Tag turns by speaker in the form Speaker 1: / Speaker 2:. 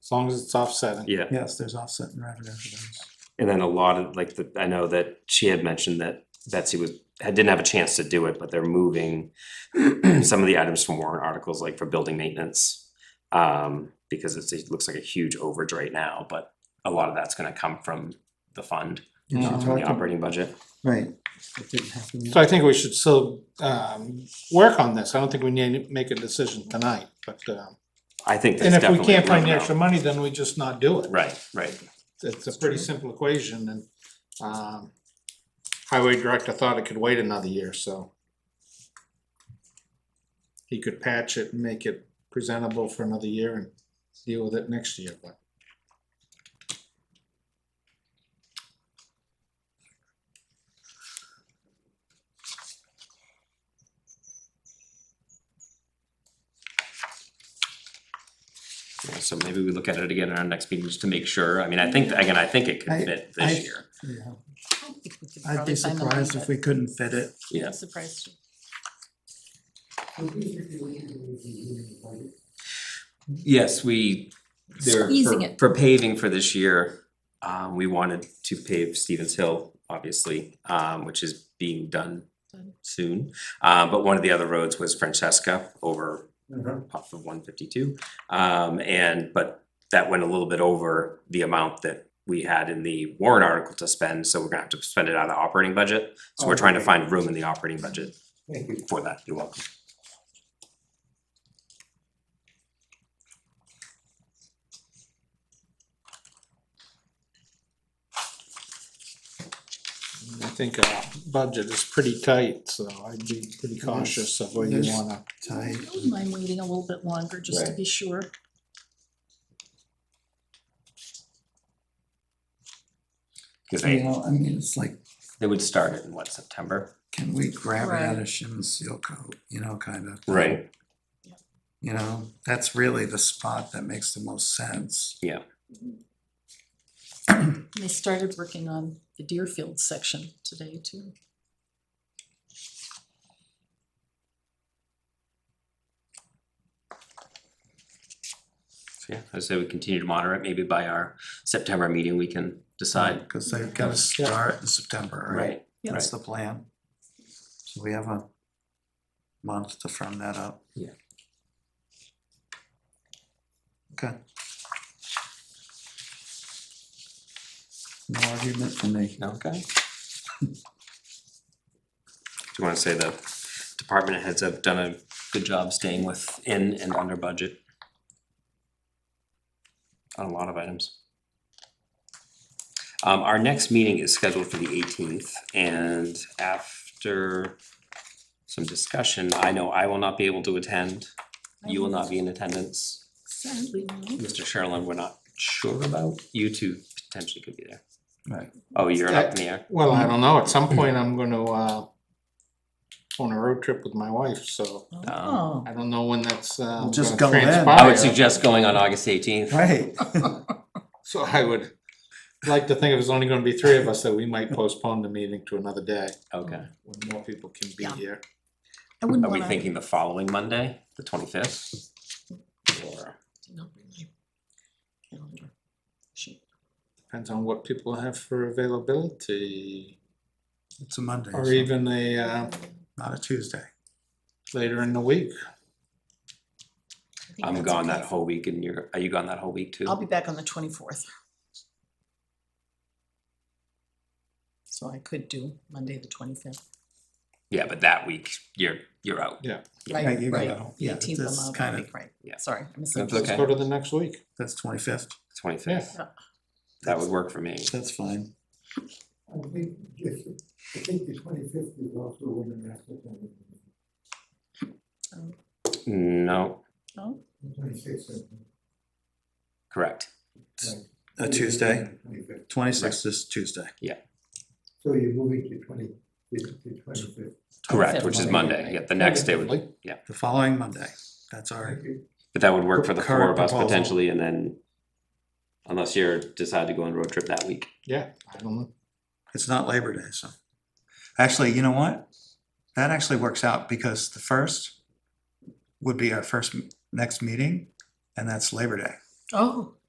Speaker 1: as long as it's offsetting.
Speaker 2: Yeah,
Speaker 1: Yes, there's offset in revenue for those.
Speaker 2: and then a lot of, like, the, I know that she had mentioned that Betsy was, had, didn't have a chance to do it, but they're moving some of the items from warrant articles, like for building maintenance. Um, because it's, it looks like a huge overage right now, but a lot of that's gonna come from the fund,
Speaker 1: Yeah,
Speaker 2: uh,
Speaker 1: she
Speaker 2: from
Speaker 1: talked
Speaker 2: the
Speaker 1: ab-
Speaker 2: operating budget.
Speaker 3: Right. It didn't happen yet.
Speaker 1: So I think we should still um work on this. I don't think we need to make a decision tonight, but um.
Speaker 2: I think
Speaker 1: And
Speaker 2: there's
Speaker 1: if we
Speaker 2: definitely.
Speaker 1: can't
Speaker 2: room
Speaker 1: find the
Speaker 2: now.
Speaker 1: extra money, then we just not do it.
Speaker 2: Right, right.
Speaker 1: It's a pretty simple equation and um highway director thought it could wait another year, so. He could patch it and make it presentable for another year and deal with it next year, but.
Speaker 2: Yeah, So maybe we look at it again in our next meeting just to make sure. I mean, I think, again, I think it could
Speaker 3: I-
Speaker 2: fit
Speaker 3: I-
Speaker 2: this year.
Speaker 3: Yeah,
Speaker 4: I don't think we could
Speaker 3: I'd
Speaker 4: probably
Speaker 3: be
Speaker 4: find the
Speaker 3: surprised
Speaker 4: money,
Speaker 3: if we couldn't fit it.
Speaker 4: but
Speaker 2: Yeah.
Speaker 4: I'm Surprised.
Speaker 2: Yes, we, there,
Speaker 4: Squeezing
Speaker 2: for,
Speaker 4: it.
Speaker 2: for paving for this year, um, we wanted to pave Stevens Hill, obviously, um, which is being done
Speaker 4: Done.
Speaker 2: soon. Um, but one of the other roads was Francesca over off of one fifty-two. Um, and, but that went a little bit over the amount that we had in the warrant article to spend, so we're gonna have to spend it out of the operating budget. So we're trying to find room in the operating budget for that. You're welcome.
Speaker 1: I think our budget is pretty tight, so I'd be pretty cautious of where you
Speaker 3: Yes.
Speaker 1: wanna.
Speaker 3: Tight.
Speaker 4: I wouldn't mind waiting a little bit longer, just to
Speaker 2: Right.
Speaker 4: be sure.
Speaker 2: Cause
Speaker 3: You
Speaker 2: they,
Speaker 3: know, I mean, it's like,
Speaker 2: they would start it in what, September?
Speaker 3: can we grab it out
Speaker 4: Right.
Speaker 3: of shim and seal coat, you know, kind of. thing.
Speaker 2: Right.
Speaker 3: You know, that's really the spot that makes the most sense.
Speaker 4: They started working on the Deerfield section today too.
Speaker 2: So yeah, I say we continue to monitor it, maybe by our September meeting, we can decide.
Speaker 3: Cause they've gotta start in September, right?
Speaker 4: Yep.
Speaker 3: That's the plan. So we have a month to firm that up.
Speaker 2: Yeah.
Speaker 3: Okay. No argument from me.
Speaker 2: Okay. Do you wanna say the department heads have done a good job staying within and under budget? On a lot of items. Um, our next meeting is scheduled for the eighteenth, and after some discussion, I know I will not be able to attend. You will not be in attendance.
Speaker 4: Sadly, no.
Speaker 2: Mr. Sherlin, we're not sure about, you two potentially could be there.
Speaker 3: Right.
Speaker 2: Oh, you're up in the air,
Speaker 1: Well,
Speaker 3: Um,
Speaker 1: I don't know, at some point I'm gonna uh on a road trip with my wife, so
Speaker 2: Um,
Speaker 4: Oh,
Speaker 1: I don't know when that's uh
Speaker 3: Well, just
Speaker 1: gonna
Speaker 3: go then.
Speaker 1: transpire.
Speaker 2: I would suggest going on August eighteenth.
Speaker 3: Right.
Speaker 1: So I would like to think if it's only gonna be three of us, that we might postpone the meeting to another day
Speaker 2: Okay,
Speaker 1: when more people can be
Speaker 4: Yeah.
Speaker 1: here.
Speaker 4: I wouldn't
Speaker 2: are we
Speaker 4: wanna.
Speaker 2: thinking the following Monday, the twenty-fifth? Or,
Speaker 4: No, really. Calendar. Shoot.
Speaker 1: Depends on what people have for availability,
Speaker 3: It's a Monday,
Speaker 1: or
Speaker 3: so
Speaker 1: even a uh
Speaker 3: not a Tuesday.
Speaker 1: later in the week.
Speaker 4: I think
Speaker 2: I'm
Speaker 4: that's
Speaker 2: gone
Speaker 4: okay.
Speaker 2: that whole week and you're, are you gone that whole week too?
Speaker 4: I'll be back on the twenty-fourth. So I could do Monday, the twenty-fifth.
Speaker 2: Yeah, but that week, you're, you're out.
Speaker 4: Right,
Speaker 3: Right, you
Speaker 4: right.
Speaker 3: go.
Speaker 4: The
Speaker 3: Yeah,
Speaker 4: eighteenth, I'm
Speaker 3: that's
Speaker 4: out that
Speaker 3: kinda-
Speaker 4: week, right.
Speaker 2: yeah.
Speaker 4: Sorry, I
Speaker 2: That's
Speaker 4: misunderstood.
Speaker 1: Let's
Speaker 2: okay.
Speaker 1: go to the next week.
Speaker 3: That's twenty-fifth.
Speaker 2: Twenty-fifth,
Speaker 4: Yeah.
Speaker 2: that would work for me.
Speaker 3: That's fine.
Speaker 5: I think, if- I think the twenty-fifth is also when the master plan is,
Speaker 4: Um,
Speaker 2: No,
Speaker 4: no?
Speaker 5: the twenty-sixth. is-
Speaker 2: correct,
Speaker 3: A Tuesday,
Speaker 5: 25th.
Speaker 3: twenty-sixth is Tuesday.
Speaker 5: So you're moving to twenty, to twenty-fifth.
Speaker 2: correct, which is
Speaker 4: 25th.
Speaker 2: Monday, yeah, the next day would,
Speaker 1: Probably.
Speaker 3: The following Monday, that's all right.
Speaker 2: but that would work for the four
Speaker 3: Current
Speaker 2: of us
Speaker 3: proposal.
Speaker 2: potentially and then. Unless you're, decide to go on a road trip that week.
Speaker 1: Yeah, I don't know.
Speaker 3: It's not Labor Day, so. Actually, you know what? That actually works out because the first would be our first m- next meeting and that's Labor Day.
Speaker 4: Oh,